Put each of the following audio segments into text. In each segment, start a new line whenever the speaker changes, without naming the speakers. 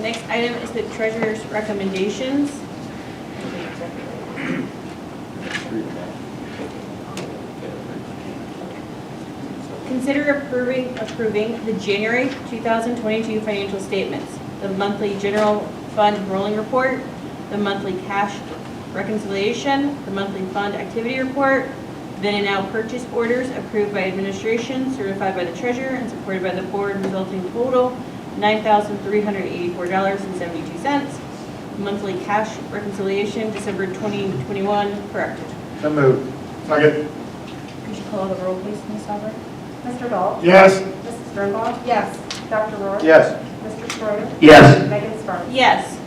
next item is the treasurer's recommendations. Consider approving, approving the January 2022 financial statements, the monthly general fund rolling report, the monthly cash reconciliation, the monthly fund activity report, then and now purchase orders approved by administration, certified by the treasurer, and supported by the board, resulting total $9,384.72. Monthly cash reconciliation, December 2021, corrected.
So moved. Second.
Could you call the roll, please, Ms. Albert?
Mr. Dahl?
Yes.
Mrs. Sternbach? Yes. Dr. Rohr?
Yes.
Mr. Schroeder?
Yes.
Megan Sparks?
Yes.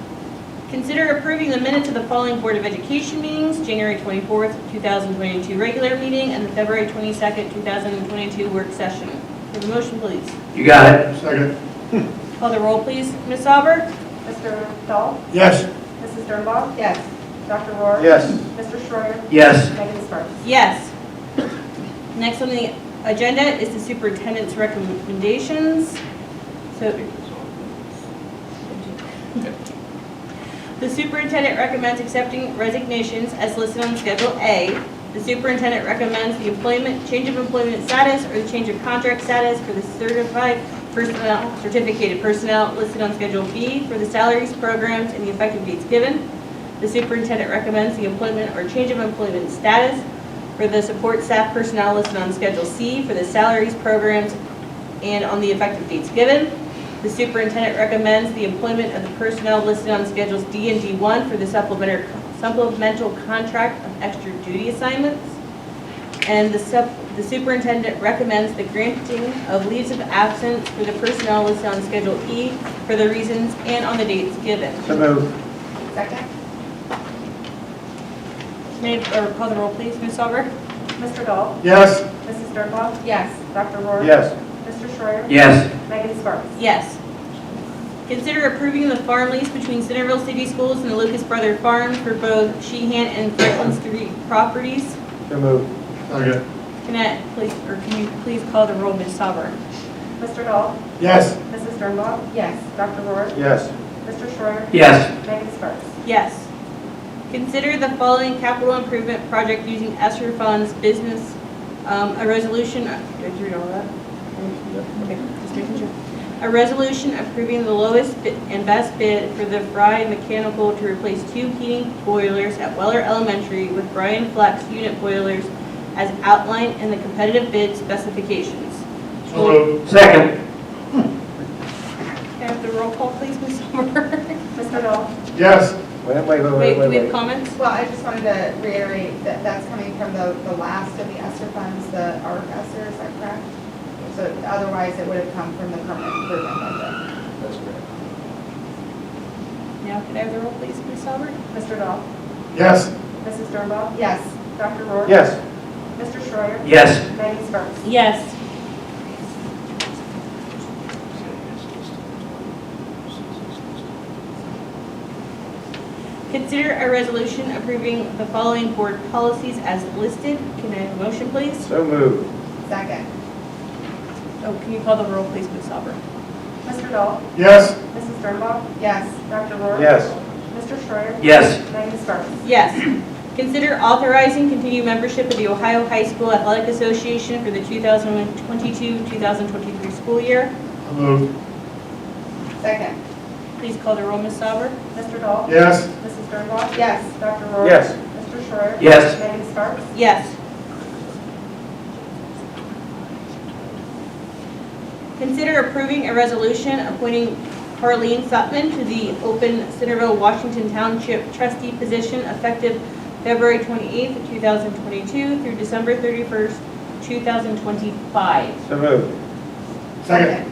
Consider approving the minutes of the following Board of Education meetings, January 24th, 2022 regular meeting, and the February 22nd, 2022 work session. Have a motion, please.
You got it?
Second.
Call the roll, please. Ms. Sauber?
Mr. Dahl?
Yes.
Mrs. Sternbach? Yes. Dr. Rohr?
Yes.
Mr. Schroeder?
Yes.
Megan Sparks?
Yes. Next on the agenda is the superintendent's recommendations. So The superintendent recommends accepting resignations as listed on Schedule A. The superintendent recommends the employment, change of employment status or the change of contract status for the certified personnel, certificated personnel listed on Schedule B for the salaries, programs, and the effective dates given. The superintendent recommends the employment or change of employment status for the support staff personnel listed on Schedule C for the salaries, programs, and on the effective dates given. The superintendent recommends the employment of the personnel listed on Schedules D and D1 for the supplementary- supplemental contract of extra duty assignments. And the sup- the superintendent recommends the granting of leaves of absence for the personnel listed on Schedule E for the reasons and on the dates given.
So moved.
Second.
May, I- or call the roll, please, Ms. Sauber?
Mr. Dahl?
Yes.
Mrs. Sternbach? Yes. Dr. Rohr?
Yes.
Mr. Schroeder?
Yes.
Megan Sparks?
Yes. Consider approving the farm lease between Centerville City Schools and the Lucas Brother Farm for both Sheehan and Franklin Street properties.
So moved. Second.
Can I, please, or can you please call the roll, Ms. Sauber?
Mr. Dahl?
Yes.
Mrs. Sternbach? Yes. Dr. Rohr?
Yes.
Mr. Schroeder?
Yes.
Megan Sparks?
Yes. Consider the following capital improvement project using ESSER funds business, um, a resolution, did you read all that? Okay, just making sure. A resolution approving the lowest bid and best bid for the Fry Mechanical to replace two heating boilers at Weller Elementary with Brian Flex unit boilers as outlined in the competitive bid specifications.
So moved.
Second.
Can I have the roll call, please, Ms. Sommer?
Mr. Dahl?
Yes. Wait, wait,
Wait,
wait,
do
wait,
we have
wait.
comments?
Well, I just wanted to reiterate that that's coming from the, the last of the ESSER funds, the ARC ESSER, is that correct? So otherwise, it would have come from the permanent improvement budget.
That's correct.
Now, can I have the roll, please, Ms. Sauber?
Mr. Dahl?
Yes.
Mrs. Sternbach?
Yes,
Dr. Rohr?
Yes.
Mr. Schroeder?
Yes.
Megan Sparks?
Yes. Consider a resolution approving the following board policies as listed. Can I have a motion, please?
So moved.
second,
Oh, can you call the roll, please, Ms. Sauber?
Mr. Dahl?
Yes.
Mrs. Sternbach?
yes,
Dr. Rohr?
Yes.
Mr. Schroeder?
Yes.
Megan Sparks?
Yes. Consider authorizing continued membership of the Ohio High School Athletic Association for the 2022-2023 school year.
So moved.
second,
Please call the roll, Ms. Sauber.
Mr. Dahl?
Yes.
Mrs. Sternbach?
yes,
Dr. Rohr?
Yes.
Mr. Schroeder?
Yes.
Megan Sparks?
Yes. Consider approving a resolution appointing Harleen Sutman to the open Centerville, Washington Township trustee position effective February 28th, 2022 through December 31st, 2025.
So moved.
second,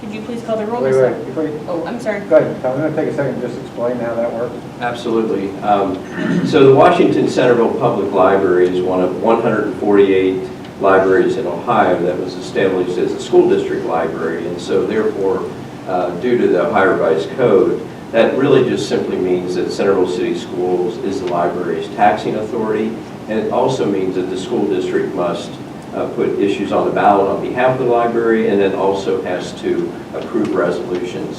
Could you please call the roll,
Wait,
Ms.
wait,
Sutton?
before you,
Oh, I'm sorry.
go ahead, Tom, I'm gonna take a second, to just explain how that works.
Absolutely. Um, So the Washington Centerville Public Library is one of 148 libraries in Ohio that was established as a school district library. And so therefore, uh, due to the Ohio Revised Code, that really just simply means that Centerville City Schools is the library's taxing authority. And it also means that the school district must uh, put issues on the ballot on behalf of the library and then also has to approve resolutions